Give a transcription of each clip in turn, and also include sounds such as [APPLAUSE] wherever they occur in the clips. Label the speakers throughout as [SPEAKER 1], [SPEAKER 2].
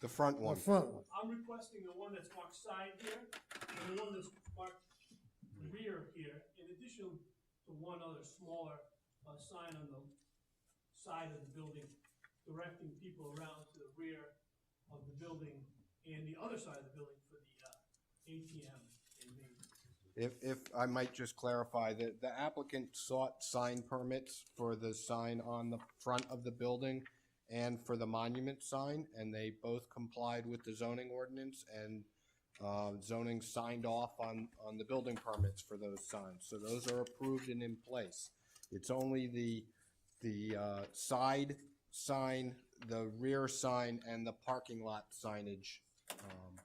[SPEAKER 1] The front
[SPEAKER 2] the
[SPEAKER 1] one.
[SPEAKER 2] front one.
[SPEAKER 3] I'm requesting the one that's marked side here, and the one that's marked rear here, in addition to one other smaller, uh, sign on the side of the building, directing people around to the rear of the building and the other side of the building for the, uh, ATM and the
[SPEAKER 1] If, if I might just clarify, the, the applicant sought sign permits for the sign on the front of the building and for the monument sign, and they both complied with the zoning ordinance and, uh, zoning signed off on, on the building permits for those signs. So those are approved and in place. It's only the, the, uh, side sign, the rear sign, and the parking lot signage, um,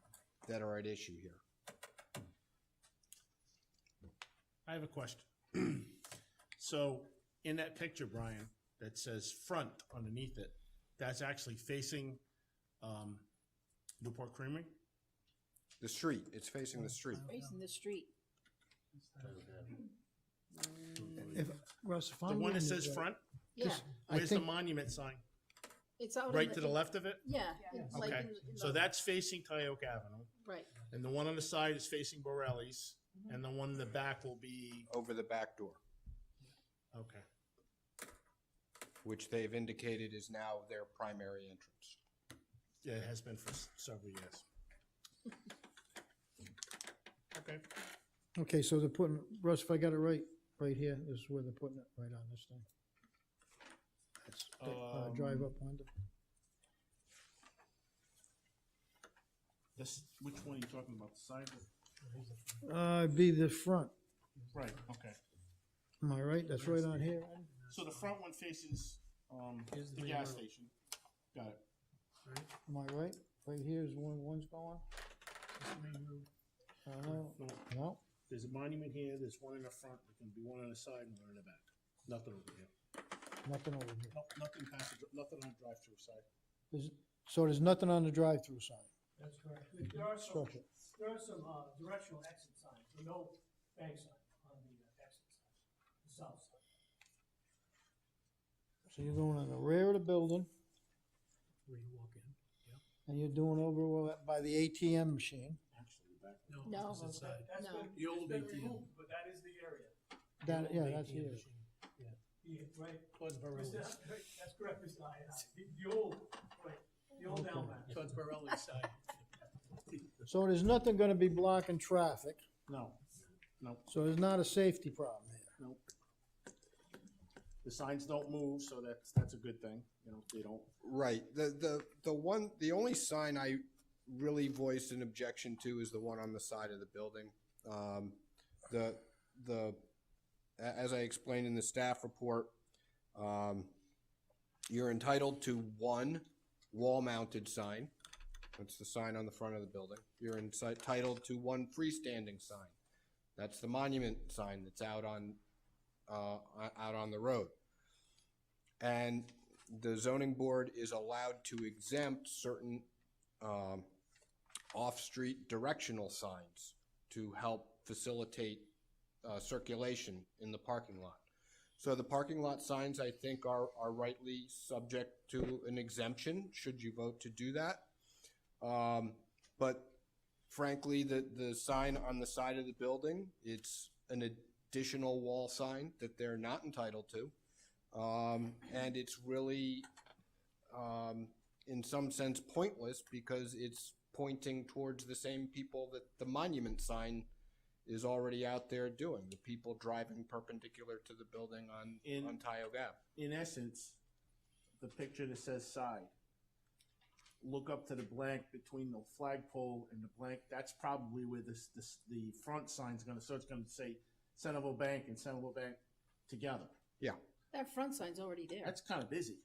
[SPEAKER 1] that are at issue here.
[SPEAKER 4] I have a question. [CLEARS THROAT] So in that picture, Brian, that says front underneath it, that's actually facing um, Newport Creamery?
[SPEAKER 1] The street, it's facing the street.
[SPEAKER 5] Facing the street.
[SPEAKER 2] If, Russ, if
[SPEAKER 4] The one
[SPEAKER 2] I'm.
[SPEAKER 4] that
[SPEAKER 2] reading it
[SPEAKER 4] says
[SPEAKER 2] right-
[SPEAKER 4] front?
[SPEAKER 5] Yeah,
[SPEAKER 2] Just- I
[SPEAKER 4] Where's the
[SPEAKER 2] think-
[SPEAKER 4] monument sign?
[SPEAKER 5] it's out. in
[SPEAKER 4] Right to Oh, the left of it?
[SPEAKER 5] Yeah, it's like
[SPEAKER 4] Okay,
[SPEAKER 5] in the- in
[SPEAKER 4] so
[SPEAKER 5] the-
[SPEAKER 4] that's facing Tyoke Avenue.
[SPEAKER 5] Right,
[SPEAKER 4] And the one on the side is facing Borelli's. And the one in the back will be,
[SPEAKER 1] over the back door,
[SPEAKER 4] okay.
[SPEAKER 1] which they've indicated is now their primary entrance.
[SPEAKER 4] Yeah, it has been for s- several years. [LAUGHS] Okay.
[SPEAKER 2] Okay, so they're putting, Russ, if I got it right, right here, this is where they're putting it, right on this thing. That's, that, uh, drive
[SPEAKER 4] Um,
[SPEAKER 2] up window.
[SPEAKER 4] This, which one are you talking about? The side? or-
[SPEAKER 2] Uh, it'd be the front,
[SPEAKER 4] Right, okay.
[SPEAKER 2] am I right? That's right on here.
[SPEAKER 4] So the front one faces, um, the gas station. Got it.
[SPEAKER 2] Am I right? Right here is one, one's going? I don't know. No,
[SPEAKER 4] Uh, There's a monument here, there's one in the front, there can be one on the side and one in the back. Nothing over here.
[SPEAKER 2] nothing over here.
[SPEAKER 4] No, nothing past, the- nothing on drive-through side.
[SPEAKER 2] There's, so there's nothing on the drive-through side,
[SPEAKER 3] That's correct. There are some,
[SPEAKER 2] structure.
[SPEAKER 3] there are some, uh, directional exit signs, but no bank sign on the uh, exit side, the south side.
[SPEAKER 2] So you're going on the rear of the building
[SPEAKER 3] Where you walk in?
[SPEAKER 2] and you're doing over by the ATM machine.
[SPEAKER 4] Actually, the back.
[SPEAKER 5] no,
[SPEAKER 3] That's
[SPEAKER 5] Oh, No.
[SPEAKER 3] been, it's been removed, but that is the area.
[SPEAKER 2] That, yeah, that's here.
[SPEAKER 3] Yeah, right. Mr. That's correct, Mr. Iannati. The, the old, right, the old
[SPEAKER 2] Okay.
[SPEAKER 3] Almac. Towards Borelli side.
[SPEAKER 2] So there's nothing gonna be blocking traffic,
[SPEAKER 4] No,
[SPEAKER 2] so there's not a safety problem here.
[SPEAKER 4] nope. The signs don't move, so that's, that's a good thing, you know, they don't.
[SPEAKER 1] Right, the, the, the one, the only sign I really voiced an objection to is the one on the side of the building. Um, the, the, a- as I explained in the staff report, um, you're entitled to one wall-mounted sign. That's the sign on the front of the building. You're inci- entitled to one freestanding sign. That's the monument sign that's out on, uh, o- out on the road. And the zoning board is allowed to exempt certain, um, off-street directional signs to help facilitate, uh, circulation in the parking lot. So the parking lot signs, I think, are, are rightly subject to an exemption, should you vote to do that. Um, but frankly, the, the sign on the side of the building, it's an additional wall sign that they're not entitled to. Um, and it's really, um, in some sense pointless because it's pointing towards the same people that the monument sign is already out there doing, the people driving perpendicular to the building on,
[SPEAKER 4] In-
[SPEAKER 1] on Tioga Ave.
[SPEAKER 4] in essence, the picture that says side. Look up to the blank between the flagpole and the blank. That's probably where this, this the front sign's going to. So it's going to say Centerville Bank and Centerville Bank together.
[SPEAKER 5] that front sign's already there.
[SPEAKER 4] That's kind of busy.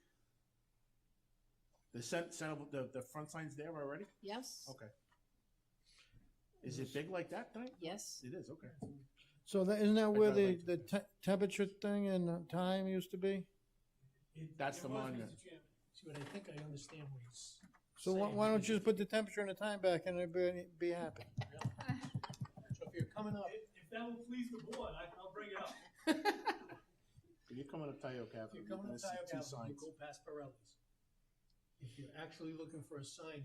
[SPEAKER 4] The cent, Centerville, the, the front sign's there already.
[SPEAKER 5] Yes,
[SPEAKER 4] Okay. Is it big like that thing?
[SPEAKER 5] yes,
[SPEAKER 4] It is. Okay.
[SPEAKER 2] So that, isn't that where
[SPEAKER 4] kinda
[SPEAKER 2] the,
[SPEAKER 4] like
[SPEAKER 2] the
[SPEAKER 4] to-
[SPEAKER 2] te- temperature thing and uh, time used to be?
[SPEAKER 4] That's the monument.
[SPEAKER 3] See, what I think I understand what he's.
[SPEAKER 2] So why, why don't you just put the temperature and the time back and it'd be, be happy?
[SPEAKER 3] Coming up. If that will please the board, I, I'll bring it up.
[SPEAKER 4] If you're coming up Tyoke Avenue,
[SPEAKER 6] If you're coming
[SPEAKER 4] gonna
[SPEAKER 6] up
[SPEAKER 4] see
[SPEAKER 6] Tioga
[SPEAKER 4] two
[SPEAKER 6] Avenue, you
[SPEAKER 4] signs.
[SPEAKER 6] go past Pirelli's. If you're actually looking for a sign